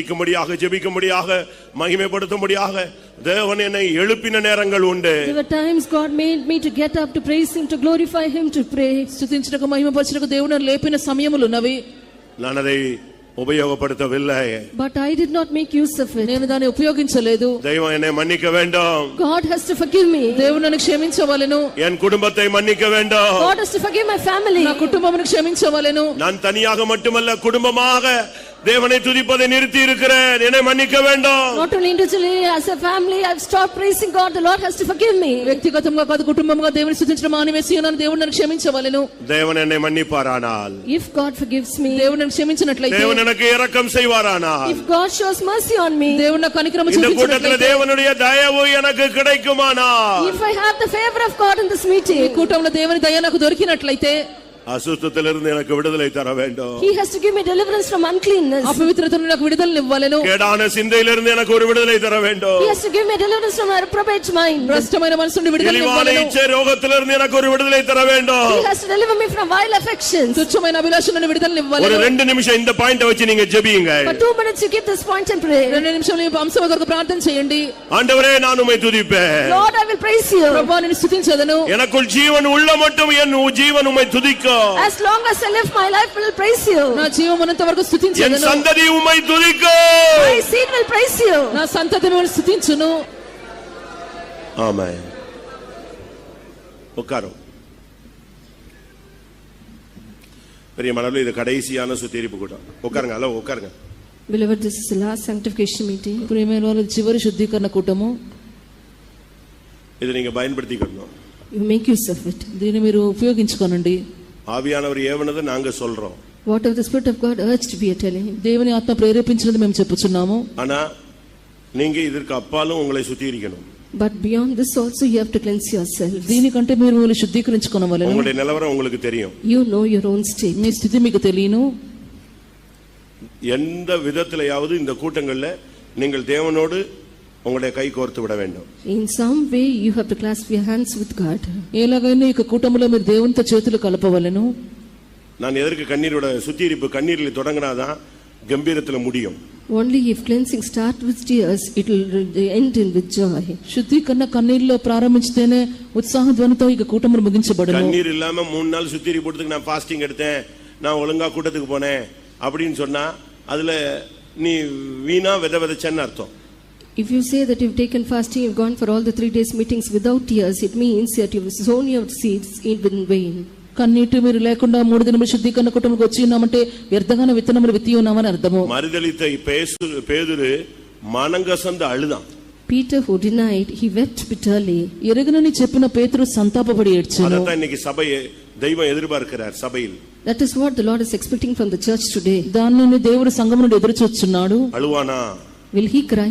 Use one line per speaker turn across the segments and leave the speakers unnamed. துதிக்கும்படியாக ஜெபிக்கும்படியாக மகிமைப்படுத்தும்படியாக தேவன் என்னை எழுப்பின நேரங்கள் உண்டு
There were times God made me to get up to praise Him, to glorify Him, to pray.
స్థుతించటకు మహిమపరచటకు దేవుని లేపిన సమయములున్నవి
நான் அதை உபயோகப்படுத்தவில்லை
But I did not make use of it.
నేను దాన్ని ఉపయోగించలేదు
தெய்வம் என்னை மன்னிக்க வேண்டும்
God has to forgive me.
దేవుడు నన్ను క్షమించవలెను
என் குடும்பத்தை மன்னிக்க வேண்டும்
God has to forgive my family.
నా కుటుంబమును క్షమించవలెను
நான் தனியாக மட்டுமல்ல குடும்பமாக தேவனை துதிப்பதை நிறுத்தி இருக்கிறேன் என்னை மன்னிக்க வேண்டும்
Not only individually, as a family, I've stopped praising God. The Lord has to forgive me.
వ్యక్తిగతంగా కాదు కుటుంబంగా దేవుని స్థుతించడం మానివేసి ఉన్నాను దేవుడు నన్ను క్షమించవలెను
தேவன் என்னை மன்னிப்பாரானால்
If God forgives me,
దేవుడు నన్ను క్షమించినట్లయితే
தேவன் எனக்கு இரக்கம் செய்வாரானால்
if God shows mercy on me,
దేవుడు నాకు అనుక్రమ
இந்த கூட்டத்தில்
చూపించినట్లయితే
தேவனுடைய தயவு எனக்கு கிடைக்குமானால்
if I have the favor of God in this
ఈ
meeting,
కూటంలో దేవుని దయ నాకు దొరికినట్లయితే
அசுத்தத்திலிருந்து எனக்கு விடுதலை தர வேண்டும்
He has to give me deliverance from uncleanness.
అపవిత్రత నుండి నాకు విడుదలను ఇవ్వలేను
கேடான சிந்தையிலிருந்து எனக்கு ஒரு விடுதலை தர
He
வேண்டும்
has to give me deliverance from my reprobate mind.
భ్రష్టమైన మనసు నుండి విడుదల
இழிவான
ఇవ్వలేను
இச்சை ரோகத்திலிருந்து எனக்கு ஒரு விடுதலை தர வேண்டும்
He has to deliver me from vile affections.
తుచ్చమైన అభిలాష నుండి విడుదలను
ஒரு
ఇవ్వలేను
ரெண்டு நிமிஷம் இந்த பாயிண்ட வச்சு நீங்க ஜெபியுங்க
For two minutes, you keep this point and pray.
రెండు నిమిషాలు ఈ అంశం కొరకు ప్రార్థన చేయండి
ஆண்டவரே நான் உம்மை துதிப்பேன்
Lord, I will praise you.
ప్రభా నేను స్థుతించదను
எனக்குள் ஜீவன் உள்ள மட்டும் என் உ- ஜீவன் உம்மை துதிக்கும்
As long as I live, my life will praise you.
నా జీవం ఉన్నంత వరకు
என்
స్థుతించదను
சந்ததி உம்மை துதிக்கும்
My seed will praise you.
నా సంతతి మిమ్మల్ని స్థుతించును
ஆமா உட்காரும் பெரிய மனதில் இது கடைசியான சுத்திரிப்பு கூட்டம் உட்காருங்க ஹலோ உட்காருங்க
Beloved, this is the last sanctification meeting.
ప్రియమైన వారు చివరి శుద్ధీకరణ కూటము
இதை நீங்க பயன்படுத்திக்கணும்
You make use of it.
దీన్ని మీరు ఉపయోగించుకోనండి
ஆவியானவர் ஏவனதை நாங்க சொல்றோம்
Whatever the Spirit of God urged, we are telling Him.
దేవుని ఆత్మ ప్రేరేపించినది మేము చెప్పుచున్నాము
ஆனா நீங்க இதற்கு அப்பாலும் உங்களை சுத்திகரிக்கணும்
But beyond this also, you have to cleanse yourself.
దీనికంటే మీరు మిమ్మల్ని శుద్ధీకరించుకోనవలెను
உங்களுடைய நிலவரம் உங்களுக்கு தெரியும்
You know your own state.
మీ స్థితి మీకు తెలియను
எந்த விதத்திலையாவது இந்த கூட்டங்கள்ல நீங்கள் தேவனோடு உங்களுடைய கை கோர்த்து விட வேண்டும்
In some way, you have to clasp your hands with God.
ఎలాగైనా ఈ కూటములో మీరు దేవునితో చేతులు కలపవలెను
நான் எதற்கு கண்ணீரோட சுத்திகரிப்பு கண்ணீரில் தொடங்கினாதான் கம்பீரத்துல முடியும்
Only if cleansing starts with tears, it will end in with joy.
శుద్ధీకరణ కన్నీళ్ళలో ప్రారంభించితేనే ఉత్సాహ ధ్వనితో ఈ కూటములు ముగించబడను
கண்ணீர் இல்லாம மூணு நாள் சுத்திரி போட்டதுக்கு நான் ஃபாஸ்டிங் எடுத்தேன் நான் ஒழுங்கா கூட்டத்துக்கு போனேன் அப்படின்னு சொன்னா அதுல நீ வீணா வித விதைச்சேன்னு அர்த்தம்
If you say that you've taken fasting, you've gone for all the three days meetings without tears, it means that you've sown your seeds in vain.
కన్నీటి మీరు లేకుండా మూడు దినములు శుద్ధీకరణ కూటములకు వచ్చి ఉన్నామంటే వ్యర్థగానే విత్తనములు విత్తి ఉన్నామని అర్థము
மறுதளித்த பேசு பேதுரு மனங்கசந்து அழுதான்
Peter, who denied, he wept bitterly.
ఎరగనని చెప్పిన పేతురు సంతాపపడి ఏడ్చాను
அதைத்தான் இன்னைக்கு சபையை தெய்வம் எதிர்பார்க்கிறார் சபையில்
That is what the Lord is expecting from the church today.
దానిని దేవుడు సంఘం నుండి ఎదురు చూస్తున్నాడు
அழுவானா
Will he cry?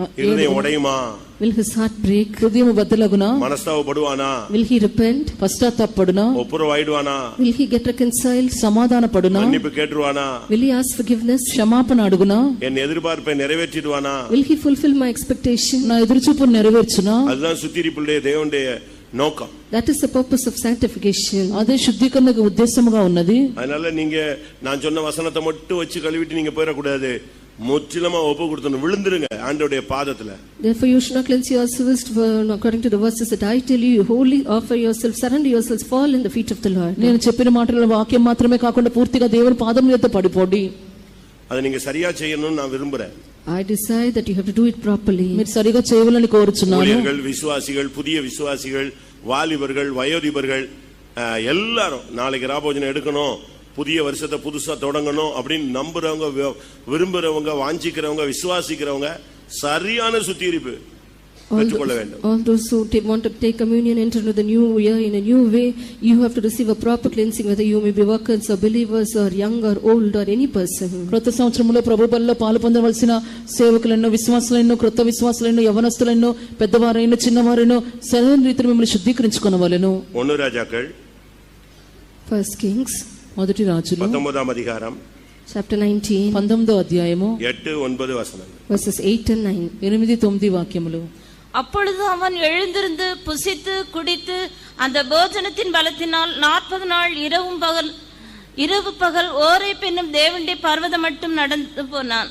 ఆ,
இருதயம் உடையுமா
Will his heart break?
హృదయం బద్దలగునా
மனஸ்தாவப்படுவானா
Will he repent?
పశ్చాత్తాపడునా
ஒப்புரவாயிடுவானா
Will he get reconciled?
సమాధాన పడునా
மன்னிப்பு கேட்டுருவானா
Will he ask forgiveness?
క్షమాపణ అడుగునా
என் எதிர்பார்ப்பை நிறைவேற்றிடுவானா
Will he fulfill my expectation?
నా எதிர்ச்சிப்பு నెరవేర్చునా
அதுதான் சுத்திரிப்புடைய தேவனுடைய நோக்கம்
That is the purpose of sanctification.
అదే శుద్ధీకరణకు ఉద్దేశముగా ఉన్నది
அதனால நீங்க நான் சொன்ன வசனத்தை மட்டும் வச்சு கழுவிட்டு நீங்க போயிடக்கூடாது முற்றிலுமா ஒப்பு கொடுத்தணும் விழுந்துருங்க ஆண்டோடைய பாதத்துல
Therefore, you should not cleanse yourselves for- according to the verses that I tell you. You wholly offer yourselves, surrender yourselves, fall in the feet of the Lord.
నేను చెప్పిన మాటల వాక్యం మాత్రమే కాకుండా పూర్తిగా దేవుని పాదం చేత పడిపోండి
அதை நீங்க சரியா செய்யணும்னு நான் விரும்புறேன்
I decide that you have to do it properly.
మీరు సరిగా చేయవాలని కోరుచున్నాను
ஊழியர்கள் விசுவாசிகள் புதிய விசுவாசிகள் வாலிபர்கள் வயோதிபர்கள் அஹ், எல்லாரும் நாளைக்கு ராபோஜனம் எடுக்கணும் புதிய வருஷத்தை புதுசா தொடங்கணும் அப்படின்னு நம்புறவங்க வி- விரும்புறவங்க வாஞ்சிக்கிறவங்க விசுவாசிக்கிறவங்க சரியான சுத்திகரிப்பு
All
பெற்றுக்கொள்ள
those,
வேண்டும்
all those who ta- want to take communion, enter into the new year in a new way, you have to receive a proper cleansing, whether you may be workers or believers or young or old or any person.
క్రొత్త సంవత్సరంలో ప్రభు బలిలో పాలు పొందవలసిన సేవకులైన విశ్వాసులైన క్రొత్త విశ్వాసులైన యవనస్తులైన పెద్దవారైన చిన్నవారైన సరైన రీతిని మిమ్మల్ని శుద్ధీకరించుకునవలెను
ஒன்னு ராஜாக்கள்
First Kings,
మొదటి రాజులు
பத்தொன்பதாம் அதிகாரம்
chapter 19,
పంతొమ్మిదో అధ్యాయము
எட்டு ஒன்பது வசனம்
verses 8 and 9.
ఎనిమిది తొమ్మిది వాక్యములు
அப்பொழுது அவன் எழுந்திருந்து புசித்து குடித்து அந்த போஜனத்தின் பலத்தினால் நாற்பது நாள் இரவும் பகல் இரவு பகல் ஓரை பெண்ணும் தேவண்டி பர்வதம் மட்டும் நடந்து போனான்